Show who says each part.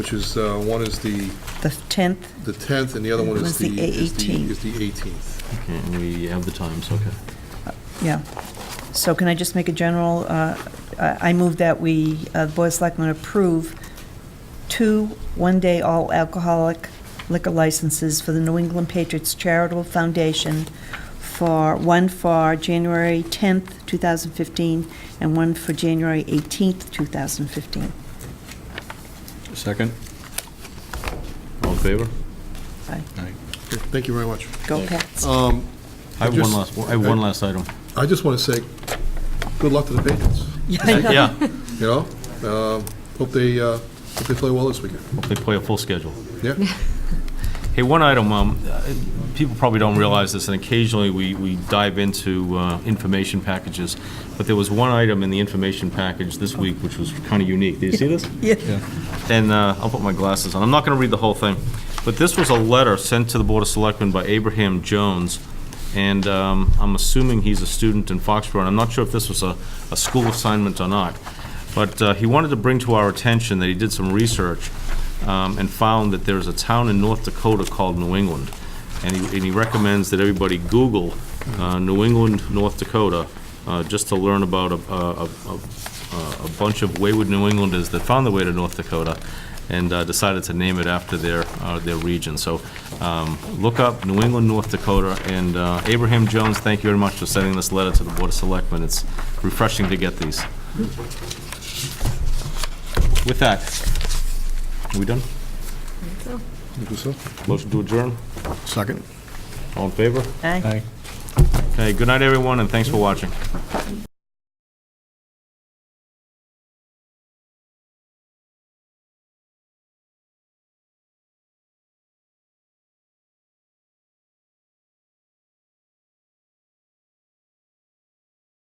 Speaker 1: which is, uh, one is the,
Speaker 2: the 10th.
Speaker 1: the 10th, and the other one is
Speaker 2: Was
Speaker 1: the,
Speaker 2: the
Speaker 1: is the
Speaker 2: 18th.
Speaker 1: is the 18th.
Speaker 3: Okay, and we have the times, okay.
Speaker 2: Yeah. So can I just make a general, uh, I I move that we, uh, the Board of Selectmen approve two one-day all alcoholic liquor licenses for the New England Patriots Charitable Foundation for, one for January 10th, 2015, and one for January 18th, 2015.
Speaker 4: Second?
Speaker 3: All in favor?
Speaker 2: Aye.
Speaker 1: Okay, Thank you very much.
Speaker 2: Go Pats.
Speaker 1: Um,
Speaker 3: I have one
Speaker 1: just-
Speaker 3: last, I have one last item.
Speaker 1: I just want to say, good luck to the Patriots,
Speaker 3: Yeah,
Speaker 1: you know? Um, Hope they, uh, hope they play well this weekend.
Speaker 3: hope they play a full schedule.
Speaker 1: Yeah?
Speaker 3: Hey, one item, um, uh, people probably don't realize this, and occasionally we, we dive into, uh, information packages, but there was one item in the information package this week which was kind of unique. Did you see this?
Speaker 2: Yeah.
Speaker 3: and uh, I'll put my glasses on. I'm not going to read the whole thing, but this was a letter sent to the Board of Selectmen by Abraham Jones, and um, I'm assuming he's a student in Foxborough, and I'm not sure if this was a, a school assignment or not, but uh, he wanted to bring to our attention that he did some research um, and found that there's a town in North Dakota called New England, and he, and he recommends that everybody Google uh, New England, North Dakota, uh, just to learn about a, a, a- a, a bunch of wayward New Englanders that found their way to North Dakota and uh, decided to name it after their, uh, their region. So um, look up New England, North Dakota, and uh, Abraham Jones, thank you very much for sending this letter to the Board of Selectmen. It's refreshing to get these. With that, we done?
Speaker 1: You think so?
Speaker 3: Motion to adjourn?
Speaker 1: Second.
Speaker 3: All in favor?
Speaker 2: Aye.
Speaker 4: Aye.
Speaker 3: Okay, good night, everyone, and thanks for watching.